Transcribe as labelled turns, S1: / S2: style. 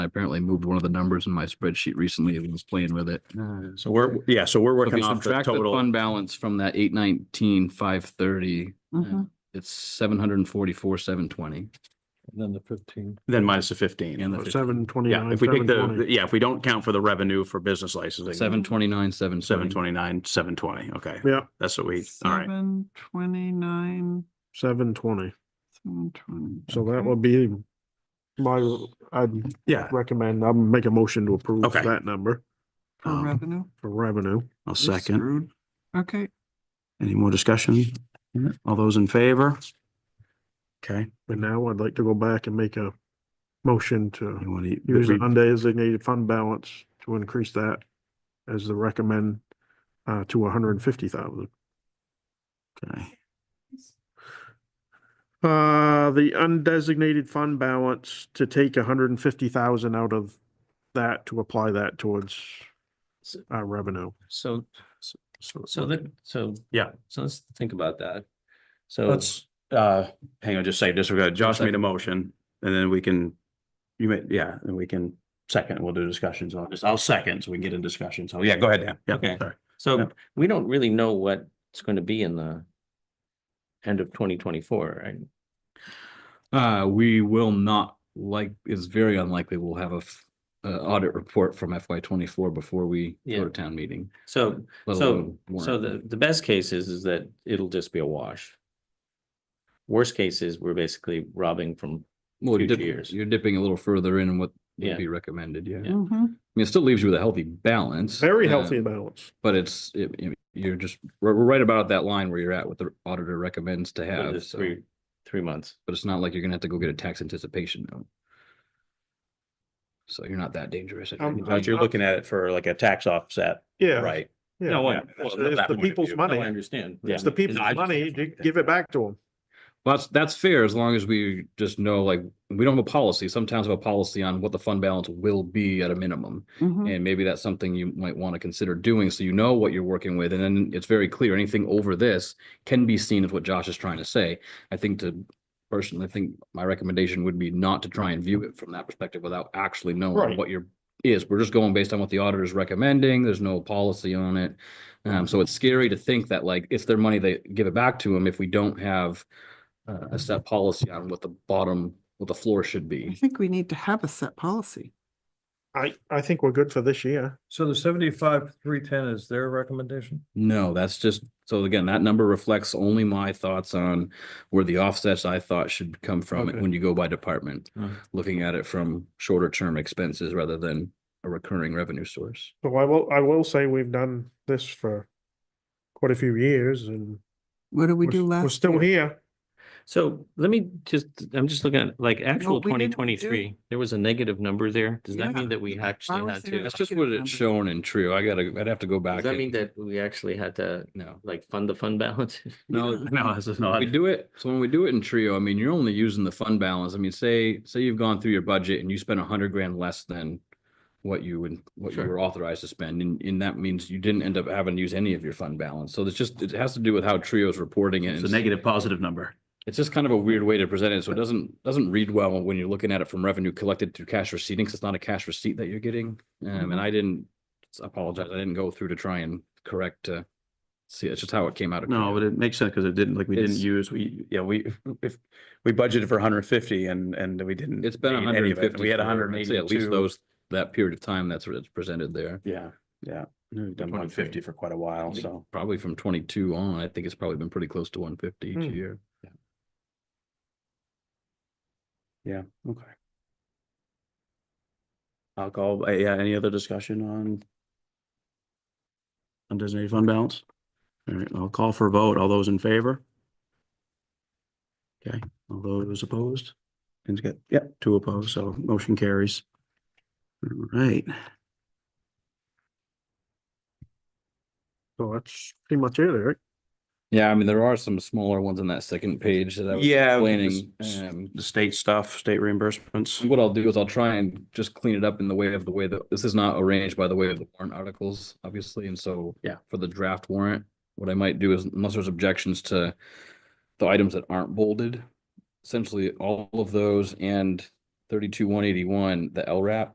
S1: I apparently moved one of the numbers in my spreadsheet recently and was playing with it.
S2: So we're, yeah, so we're
S1: If you
S2: working off the
S1: subtract the
S2: total.
S1: fund balance from that eight nineteen, five thirty,
S3: Mhm.
S1: it's seven hundred and forty-four, seven twenty.
S4: Then the fifteen.
S2: Then minus the fifteen.
S1: And
S4: Or
S1: the
S4: Seven
S2: Yeah,
S4: twenty-nine,
S2: if we take
S4: seven
S2: the,
S4: twenty.
S2: yeah, if we don't count for the revenue for business licensing.
S1: seven twenty-nine, seven
S2: Seven twenty-nine, seven twenty, okay.
S4: Yeah,
S2: That's what we, all right.
S3: Seven twenty-nine,
S4: seven twenty.
S3: seven twenty.
S4: So that
S3: Okay.
S4: would be my, I'd
S2: Yeah,
S4: recommend, I'll make a motion to approve
S2: Okay.
S4: that number
S3: For
S2: um,
S3: revenue,
S4: for revenue.
S2: I'll
S3: You're
S2: second.
S3: okay,
S2: Any more discussion? All those in favor? Okay,
S4: And now I'd like to go back and make a motion to
S2: you want to.
S4: use the undesignated fund balance to increase that as the recommend uh, to hundred and fifty thousand.
S2: Okay.
S4: Uh, the undesignated fund balance to take hundred and fifty thousand out of that to apply that towards
S5: S-
S4: our revenue.
S5: So, so that, so.
S2: Yeah.
S5: So let's think about that. So,
S2: Let's, uh, hang on just a second, just, we Josh made a motion, and then we can, you may, yeah, and we can second, we'll do discussions on this. I'll second, so we can get in discussion. So, yeah, go ahead, Dan. Yeah,
S5: Okay.
S2: sorry. yeah.
S5: so we don't really know what it's going to be in the end of twenty twenty-four, right?
S1: Uh, we will not like, it's very unlikely we'll have a f- uh, audit report from FY twenty-four before we go
S5: Yeah.
S1: to town meeting.
S5: So,
S1: let
S5: so,
S1: alone warrant.
S5: so the, the best case is, is that it'll just be a wash. Worst case is we're basically robbing from,
S1: Well, you're
S5: future
S1: dip-
S5: years.
S1: You're dipping a little further in what
S5: Yeah.
S1: would be recommended, yeah. I mean,
S3: Mhm.
S1: it still leaves you with a healthy balance.
S4: Very
S1: uh,
S4: healthy balance.
S1: But it's, it- it- you're just, we're, we're right about that line where you're at, what the auditor recommends to
S5: for the
S1: have, so,
S5: three, three months.
S1: but it's not like you're gonna have to go get a tax anticipation note. So you're not that dangerous. I
S4: Um,
S1: think.
S4: I
S2: But you're looking at it for like a tax offset,
S4: Yeah.
S2: right?
S4: yeah.
S5: No, I-
S4: It's-
S5: well,
S4: It's
S5: that
S4: the
S5: point of
S4: people's
S5: view. No, I
S4: money.
S5: understand.
S4: It's the people's money. Gi- Give it back to them.
S1: Well, That's, that's fair, as long as we just know, like, we don't have a policy, some towns have a policy on what the fund balance will be at a minimum.
S3: Mhm.
S1: And maybe that's something you might want to consider doing, so you know what you're working with, and then it's very clear, anything over this can be seen as what Josh is trying to say. I think to, personally, I think my recommendation would be not to try and view it from that perspective without actually knowing
S4: Right.
S1: what your is. We're just going based on what the auditor is recommending, there's no policy on it. Um, so it's scary to think that like, it's their money, they give it back to them if we don't have uh, a set policy on what the bottom, what the floor should
S3: I
S1: be.
S3: think we need to have a set policy.
S4: I, I think we're good for this year.
S6: So the seventy-five, three ten is their recommendation?
S1: No, that's just, so again, that number reflects only my thoughts on where the offsets I thought should come from
S4: Okay.
S1: when you go by department.
S6: Mm.
S1: Looking at it from shorter term expenses rather than a recurring revenue source.
S4: So I will, I will say we've done this for quite a few years and
S3: What did we
S4: we're-
S3: do last?
S4: We're still
S3: year?
S4: here.
S5: So let me just, I'm just looking at like actual
S3: we
S5: twenty
S3: didn't do-
S5: twenty-three, there was a negative number there. Does that
S3: Yeah.
S5: mean that we actually
S3: was
S5: had
S3: there-
S5: to?
S1: That's just what it's shown and true. I gotta, I'd have to go
S5: Does
S1: back.
S5: that
S1: and-
S5: mean that we actually had to
S1: No.
S5: like fund the fund balance?
S1: No,
S2: No, this is not.
S1: We do it, so when we do it in trio, I mean, you're only using the fund balance. I mean, say, say you've gone through your budget and you spent a hundred grand less than what you would, what you
S5: Sure.
S1: were authorized to spend, and, and that means you didn't end up having to use any of your fund balance. So it's just, it has to do with how trio's reporting it.
S2: It's a
S1: and
S2: negative, positive number.
S1: It's just kind of a weird way to present it, so it doesn't, doesn't read well when you're looking at it from revenue collected through cash receipting, 'cause it's not a cash receipt that you're getting. Um,
S3: Mhm.
S2: Mm-hmm.
S1: and I didn't, I apologize, I didn't go through to try and correct, uh, see, it's just how it came out. of
S2: No,
S1: Creo.
S2: but it makes sense because it didn't, like, we didn't
S1: It's-
S2: use, we, yeah, we, if- if, we budgeted for hundred and fifty and, and we didn't.
S1: It's been
S2: need
S1: hundred
S2: any of
S1: and
S2: it.
S1: fifty.
S2: We had hundred and eighty-two.
S1: At least those, that period of time, that's what it's presented there.
S2: Yeah, yeah. We've done
S1: 150.
S2: one fifty for quite a while,
S1: I think
S2: so.
S1: Probably from twenty-two on, I think it's probably been pretty close to one fifty each
S4: Hmm.
S1: year.
S2: Yeah, okay. Alcohol, uh, yeah, any other discussion on? Undesignated fund balance? All right, I'll call for a vote. All those in favor? Okay, all those opposed? And get, yep, two opposed, so motion carries. All right,
S4: So that's pretty much it, Eric.
S1: Yeah, I mean, there are some smaller ones on that second page that I was
S2: Yeah,
S1: explaining.
S2: s- s-
S1: Um,
S2: the state stuff, state reimbursements.
S1: what I'll do is I'll try and just clean it up in the way of the way that, this is not arranged by the way of the warrant articles, obviously, and so.
S2: Yeah.
S1: For the draft warrant, what I might do is unless there's objections to the items that aren't bolded, essentially all of those and thirty-two, one eighty-one, the LRAP